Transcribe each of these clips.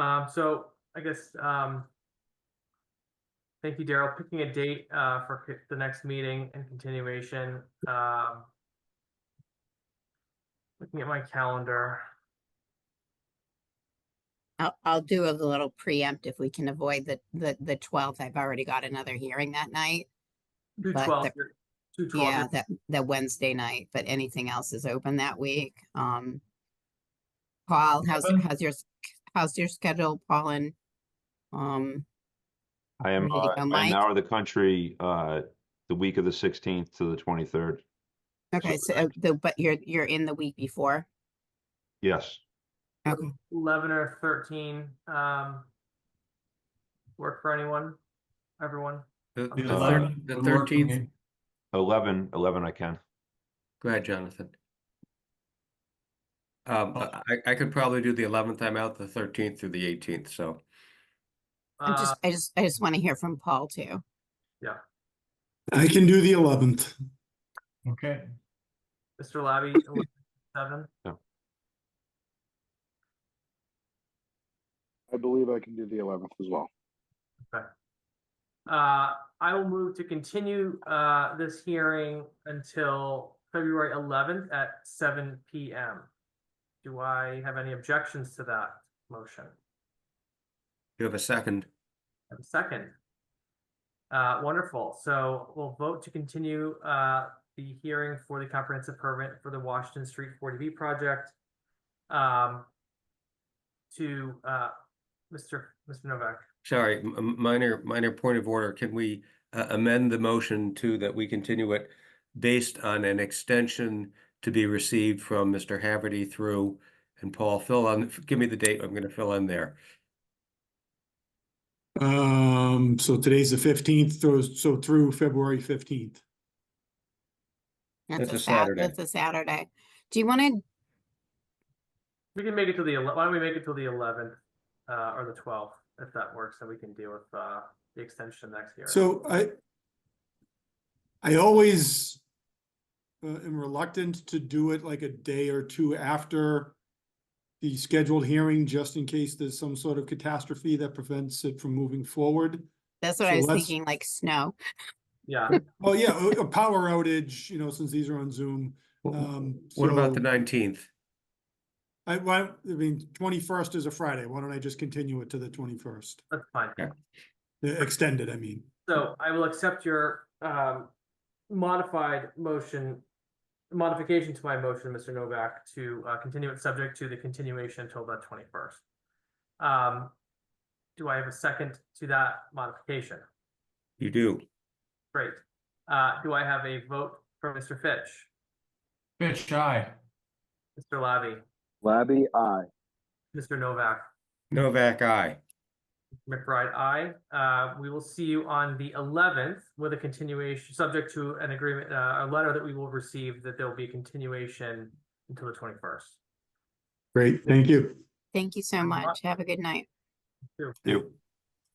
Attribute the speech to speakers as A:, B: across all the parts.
A: Um, so I guess, um. Thank you, Daryl. Picking a date, uh, for c- the next meeting and continuation, um. Looking at my calendar,
B: I'll, I'll do a little preempt if we can avoid the, the, the twelfth. I've already got another hearing that night.
A: two
B: But
A: twelve,
B: the-
A: two
B: Yeah,
A: twelve,
B: that, that Wednesday night, but anything else is open that week. Um. Paul, how's,
A: Seven.
B: how's your, s- how's your schedule, Paul and? Um,
C: I am,
B: Ready to
C: uh,
B: go,
C: I am
B: Mike?
C: out of the country, uh, the week of the sixteenth to the twenty-third.
B: okay, so, uh, the- but you're, you're in the week before.
C: Yes,
B: Okay,
A: eleven or thirteen, um. Work for anyone, everyone?
D: The
A: Okay.
D: the
C: Uh,
D: thir- the thirteenth,
C: eleven, eleven I can.
D: go ahead, Jonathan. Um, I, I could probably do the eleventh, I'm out the thirteenth through the eighteenth, so,
B: I'm
A: Uh,
B: just, I just, I just want to hear from Paul too.
E: I can do the eleventh.
F: Okay,
A: Mr. Labby, seven,
G: I believe I can do the eleventh as well.
A: Uh, I will move to continue, uh, this hearing until February eleventh at seven P M. Do I have any objections to that motion?
D: you have a second.
A: And second. Uh, wonderful. So we'll vote to continue, uh, the hearing for the comprehensive permit for the Washington Street forty B project. Um, to, uh, Mr. Mr. Novak.
D: Sorry, m- m- minor, minor point of order, can we uh, amend the motion to that we continue it based on an extension to be received from Mr. Haverty through, and Paul, fill on, give me the date, I'm gonna fill in there.
E: Um, so today's the fifteenth, so, so through February fifteenth.
D: That's a
B: Sat-
D: Saturday.
B: That's a Saturday. Do you want to,
A: We can make it to the, ele- why don't we make it till the eleventh, uh, or the twelfth, if that works, then we can deal with, uh, the extension next year.
E: So I, I always uh, am reluctant to do it like a day or two after the scheduled hearing, just in case there's some sort of catastrophe that prevents it from moving forward.
B: that's what I
E: So
B: was
E: let's-
B: thinking, like snow.
A: Yeah,
E: Oh, yeah, a a power outage, you know, since these are on Zoom. Um,
D: What about the
E: so-
D: nineteenth?
E: I, why, I mean, twenty-first is a Friday. Why don't I just continue it to the twenty-first?
A: that's fine.
E: Extended, I mean.
A: So I will accept your, um, modified motion, modification to my motion, Mr. Novak, to, uh, continue it subject to the continuation until the twenty-first. Um, do I have a second to that modification?
D: You do,
A: Great. Uh, do I have a vote for Mr. Fitch,
F: Fitch, aye.
A: Mr. Labby,
G: Labby, I.
A: Mr. Novak?
D: Novak, aye.
A: McBride, aye. Uh, we will see you on the eleventh with a continuation, subject to an agreement, uh, a letter that we will receive that there'll be a continuation until the twenty-first.
E: Great, thank you.
B: Thank you so
A: Thank you much.
B: much. Have a good night.
C: You,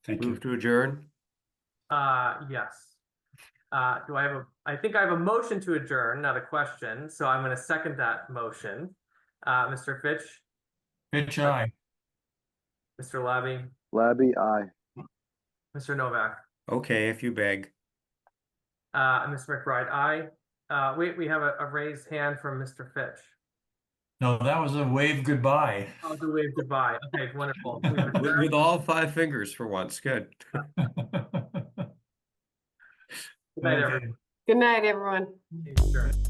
F: Thank
D: Move to adjourn?
A: Uh, yes. Uh, do I have a, I think I have a motion to adjourn, not a question, so I'm gonna second that motion. Uh, Mr. Fitch,
F: Fitch, aye.
A: Mr. Labby,
G: Labby, I.
A: Mr. Novak,
D: Okay, if you beg.
A: uh, and Ms. McBride, aye. Uh, wait, we have a, a raised hand from Mr. Fitch.
F: No, that was a wave goodbye.
A: I'll do wave goodbye. Okay, wonderful. We have
D: With,
A: adjourned.
D: with all five fingers for once, good.
A: Good night, everyone.
F: Okay.
H: Good night, everyone.
A: Sure.